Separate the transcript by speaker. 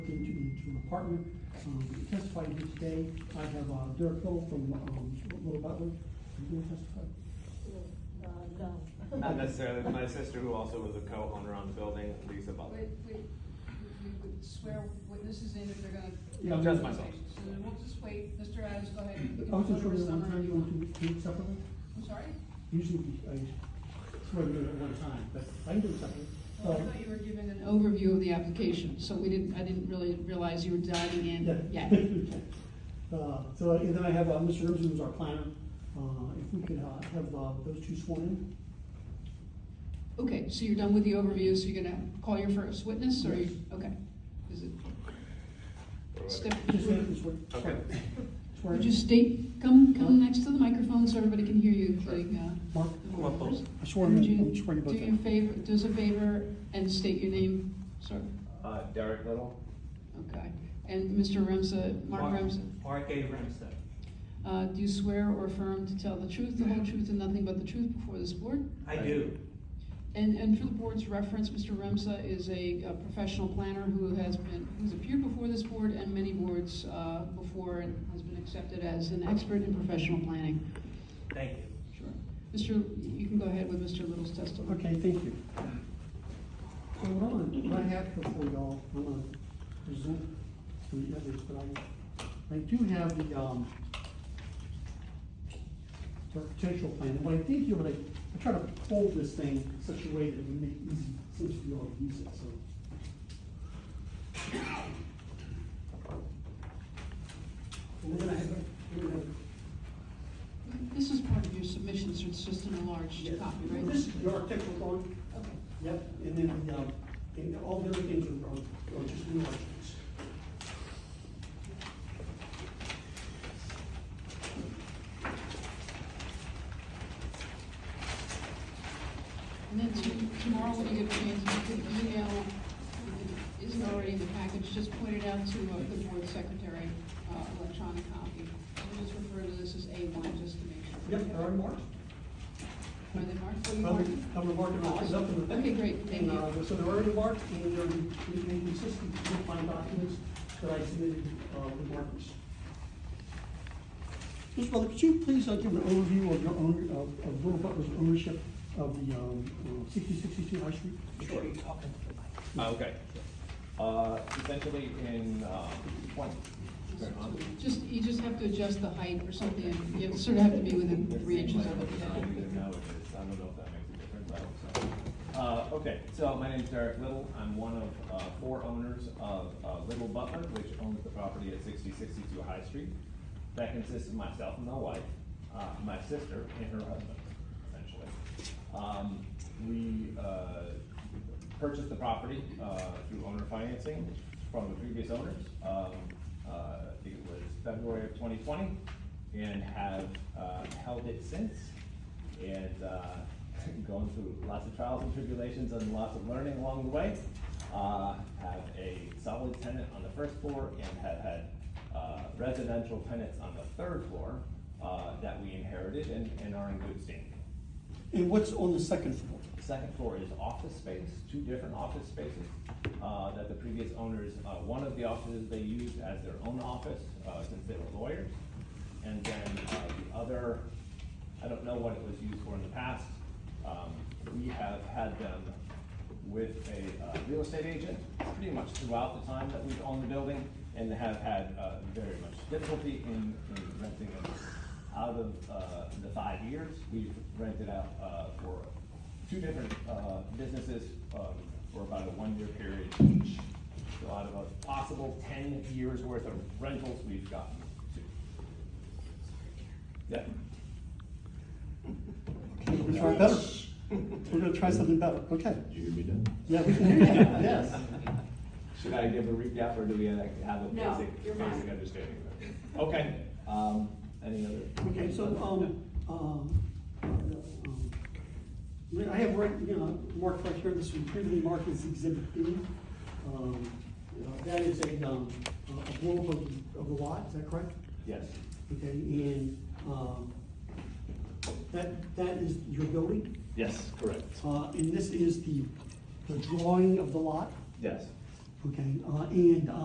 Speaker 1: department, um, testified here today. I have, uh, Derek Hill from, um, Little Butler, who testified.
Speaker 2: Uh, no.
Speaker 3: Not necessarily, my sister who also was a co-owner on the building, Lisa Butler.
Speaker 4: Wait, wait, we would swear witnesses in if they're gonna.
Speaker 1: Yeah, I'm-
Speaker 3: Just myself.
Speaker 4: So then we'll just wait, Mr. Adams, go ahead. You can
Speaker 1: I was just
Speaker 4: go
Speaker 1: wondering,
Speaker 4: to the
Speaker 1: one time, you
Speaker 4: summary.
Speaker 1: want to do it separately?
Speaker 4: I'm sorry?
Speaker 1: Usually, we- I swear to do it at one time, but I can do it separately.
Speaker 4: Oh, I
Speaker 1: Um,
Speaker 4: thought you were giving an overview of the application, so we didn't, I didn't really realize you were diving in
Speaker 1: Yeah.
Speaker 4: yet.
Speaker 1: Uh, So, and then I have uh, Mr. Urban, who's our planner. Uh, If we could uh, have uh, those two sworn in?
Speaker 4: Okay, so you're done with the overview, so you're gonna call your first witness, or
Speaker 1: Yes.
Speaker 4: you, okay. Is it, step,
Speaker 1: Just say it's what-
Speaker 3: Okay.
Speaker 1: swear.
Speaker 4: would you state, come, come next to the microphone so everybody can hear you, including, uh.
Speaker 1: Mark,
Speaker 4: the
Speaker 3: Well,
Speaker 4: members.
Speaker 1: I swore him in.
Speaker 4: Would you
Speaker 1: I'm swearing both
Speaker 4: Do
Speaker 1: in.
Speaker 4: your favor, do us a favor and state your name, sir.
Speaker 5: Uh, Derek Little.
Speaker 4: Okay, and Mr. Remsa, Mark Remsa,
Speaker 6: Mark A. Remsen.
Speaker 4: uh, do you swear or affirm to tell the truth, the whole truth, and nothing but the truth before this board?
Speaker 6: I do.
Speaker 4: And, and for the board's reference, Mr. Remsa is a, a professional planner who has been, who's appeared before this board and many boards, uh, before and has been accepted as an expert in professional planning.
Speaker 6: Thank you.
Speaker 4: Sure. Mr., you can go ahead with Mr. Little's testimony.
Speaker 1: Okay, thank you. So what I'm gonna, what I have here for y'all, I'm gonna present to the others, but I, I do have the, um, architectural plan, but I think you, when I, I try to fold this thing in such a way that it would make it easy, seems to be able to use it, so. And then I have, we're gonna have
Speaker 4: This is part of your submission, so it's just an enlarged copy, right?
Speaker 1: This is the architectural drawing.
Speaker 4: Okay.
Speaker 1: Yep, and then, the, um, and all the other things are, are are just new options.
Speaker 4: And then to- tomorrow, when you get a chance, you can email, if it isn't already in the package, just point it out to uh, the board secretary, uh, electronic copy. We'll just refer to this as A one, just to make sure.
Speaker 1: Yep, they're marked.
Speaker 4: Are they marked for you, Mark?
Speaker 1: Probably, probably marking all this up in the thing.
Speaker 4: Okay, great, thank
Speaker 1: And, uh,
Speaker 4: you.
Speaker 1: So they're already marked, and they're they're consistent with my documents that I submitted uh, with markers. Ms. Butler, could you please uh, give an overview of your own, of of Little Butler's ownership of the um, uh, sixty sixty-two High Street?
Speaker 5: Sure.
Speaker 3: Okay.
Speaker 5: Uh, essentially in, uh, twenty. Fair enough.
Speaker 4: Just, you just have to adjust the height or something, you sort of have to be within three inches of it.
Speaker 5: I don't even know if it's- I don't know if that makes a difference, I hope so. Uh, okay, so my name's Derek Little, I'm one of, uh, four owners of, uh, Little Butler, which owns the property at sixty sixty-two High Street. That consists of myself and my wife, uh, my sister and her husband, essentially. Um, we, uh, purchased the property, uh, through owner financing from the previous owners. Um, uh, I think it was February of twenty twenty, and have, uh, held it since. And, uh, going through lots of trials and tribulations and lots of learning along the way. Uh, have a solid tenant on the first floor and have had, uh, residential tenants on the third floor, uh, that we inherited and, and are in good standing.
Speaker 1: And what's on the second floor?
Speaker 5: Second floor is office space, two different office spaces, uh, that the previous owners, uh, one of the offices they used as their own office, uh, since they were lawyers. And then, uh, the other, I don't know what it was used for in the past, um, we have had them with a, uh, real estate agent pretty much throughout the time that we've owned the building, and have had, uh, very much difficulty in, in renting them. Out of, uh, the five years, we've rented out, uh, for two different uh, businesses um, for about a one-year period each. So out of a possible ten years' worth of rentals, we've gotten two. Yeah.
Speaker 1: We're gonna try better. We're gonna try something better, okay.
Speaker 7: Did you hear me done?
Speaker 1: Yeah, we can hear you, yes.
Speaker 3: Should I give a recap or do we have a
Speaker 2: No,
Speaker 3: basic,
Speaker 2: you're
Speaker 3: basic
Speaker 2: fine.
Speaker 3: understanding of it? Okay, um, any other?
Speaker 1: Okay, so, um, um, um, I have right, you know, marked right here, this was previously marked as exhibit B. Um, uh, That is a, um, a blow of, of the lot, is that correct?
Speaker 3: Yes,
Speaker 1: Okay, and, um, that, that is your building,
Speaker 3: yes, correct,
Speaker 1: uh, and this is the, the drawing of the lot,
Speaker 3: yes.
Speaker 1: okay? Uh, and,